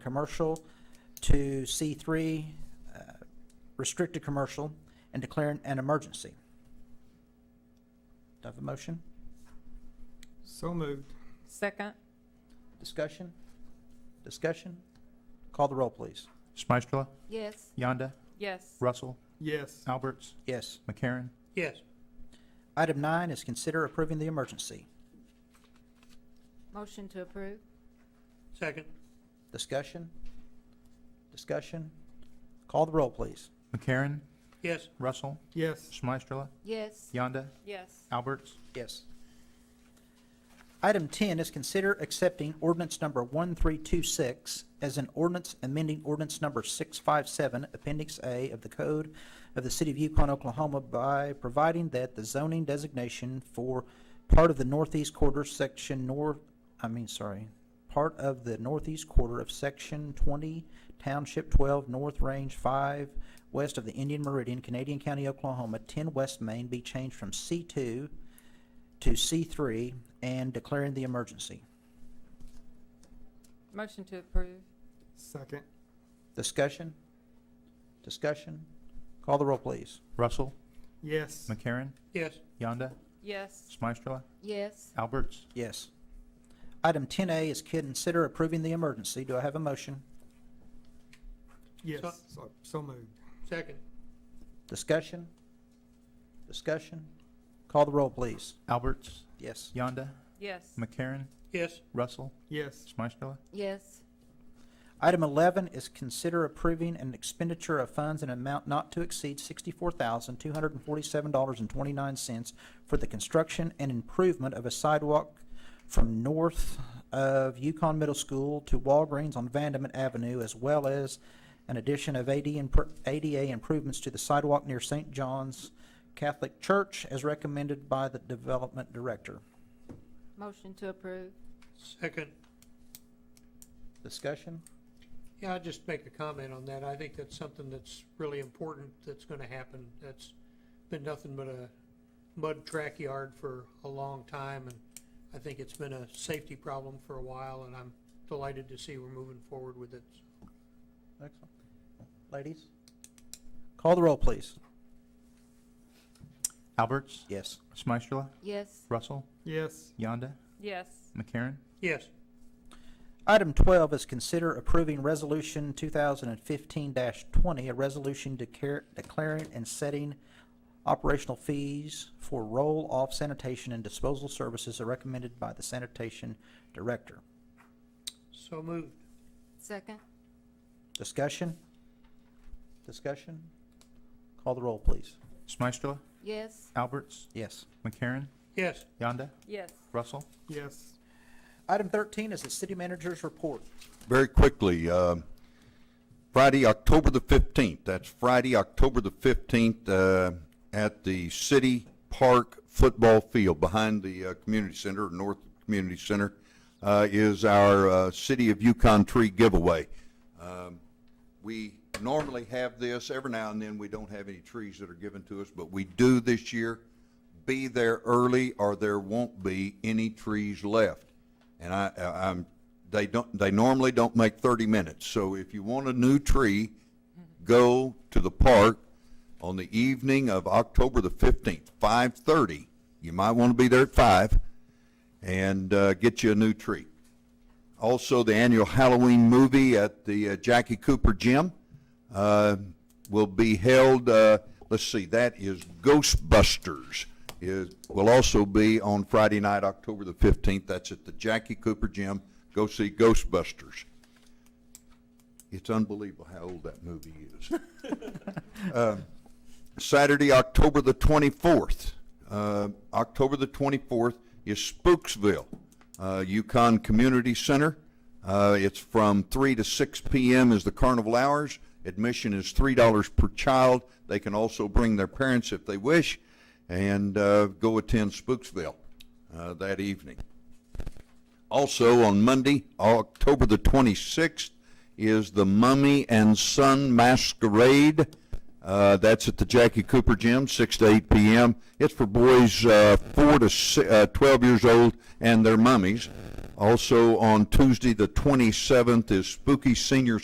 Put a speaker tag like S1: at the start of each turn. S1: commercial to C three, uh, restricted commercial, and declaring an emergency. Do I have a motion?
S2: So moved.
S3: Second,
S1: Discussion? Discussion? Call the roll, please.
S4: Smystrela,
S3: yes.
S4: Yonda,
S3: Yes.
S4: Russell,
S2: Yes.
S4: Alberts,
S1: Yes.
S4: McCarron,
S5: yes,
S1: Item nine is consider approving the emergency.
S3: Motion to approve?
S5: second,
S1: Discussion? Discussion? Call the roll, please.
S4: McCarron,
S5: yes,
S4: Russell,
S2: Yes.
S4: Smystrela,
S3: Yes.
S4: Yonda,
S3: Yes.
S4: Alberts,
S1: Yes. Item 10 is consider accepting ordinance number 1326 as an ordinance amending ordinance number 657, Appendix A of the Code of the City of Yukon, Oklahoma by providing that the zoning designation for part of the northeast quarter section north, I mean, sorry, part of the northeast quarter of Section 20, Township 12, North Range 5, west of the Indian Meridian, Canadian County, Oklahoma, 10 West Main be changed from C2 to C3 and declaring the emergency.
S3: Motion to approve?
S2: Second.
S1: Discussion? Discussion? Call the roll, please.
S4: Russell,
S2: Yes.
S4: McCarron,
S5: yes,
S4: Yonda,
S3: Yes.
S4: Smystrela,
S3: Yes.
S4: Alberts,
S1: Yes. Item 10A is consider approving the emergency. Do I have a motion?
S2: Yes.
S5: So-
S2: So- So moved.
S5: second,
S1: Discussion? Discussion? Call the roll, please.
S4: Alberts,
S1: Yes.
S4: Yonda,
S3: Yes.
S4: McCarron,
S5: yes,
S4: Russell,
S2: Yes.
S4: Smystrela,
S3: Yes.
S1: Item 11 is consider approving an expenditure of funds in an amount not to exceed $64,247.29 for the construction and improvement of a sidewalk from north of Yukon Middle School to Walgreens on Vandeman Avenue, as well as an addition of AD imp- ADA improvements to the sidewalk near St. John's Catholic Church, as recommended by the Development Director.
S3: Motion to approve?
S5: second.
S1: Discussion?
S5: Yeah, I'll just make a comment on that. I think that's something that's really important that's gonna happen. That's been nothing but a mud track yard for a long time, and I think it's been a safety problem for a while, and I'm delighted to see we're moving forward with it.
S1: Excellent. Ladies? Call the roll, please.
S4: Alberts,
S1: Yes.
S4: Smystrela,
S3: Yes.
S4: Russell,
S2: Yes.
S4: Yonda,
S3: Yes.
S4: McCarron,
S5: Yes,
S1: Item 12 is consider approving Resolution 2015-20, a resolution decar- declaring and setting operational fees for roll-off sanitation and disposal services are recommended by the sanitation director.
S5: so moved.
S3: Second?
S1: Discussion? Discussion? Call the roll, please.
S4: Smystrela,
S3: Yes.
S4: Alberts,
S1: Yes.
S4: McCarron,
S5: Yes,
S4: Yonda,
S3: Yes.
S4: Russell,
S2: Yes.
S1: Item 13 is the city manager's report.
S6: very quickly, um, Friday, October the 15th, that's Friday, October the 15th, uh, at the City Park Football Field behind the uh, Community Center, North Community Center, uh, is our uh, City of Yukon Tree Giveaway. Um, we normally have this, every now and then, we don't have any trees that are given to us, but we do this year. Be there early or there won't be any trees left. And I, I- I'm, they don't, they normally don't make thirty minutes, so if you want a new tree, go to the park on the evening of October the fifteenth, five-thirty. You might want to be there at five and, uh, get you a new tree. Also, the annual Halloween movie at the uh, Jackie Cooper Gym uh, will be held, uh, let's see, that is Ghostbusters. Is, will also be on Friday night, October the 15th. That's at the Jackie Cooper Gym. Go see Ghostbusters. It's unbelievable how old that movie is. Saturday, October the 24th. Uh, October the 24th is Spooksville, uh, Yukon Community Center. Uh, it's from 3 to 6 p.m. is the carnival hours. Admission is $3 per child. They can also bring their parents if they wish and uh, go attend Spooksville uh, that evening. Also on Monday, October the 26th, is the Mummy and Son Masquerade. Uh, that's at the Jackie Cooper Gym, 6 to 8 p.m. It's for boys uh, 4 to si uh, 12 years old and their mummies. Also, on Tuesday, the 27th, is Spooky Senior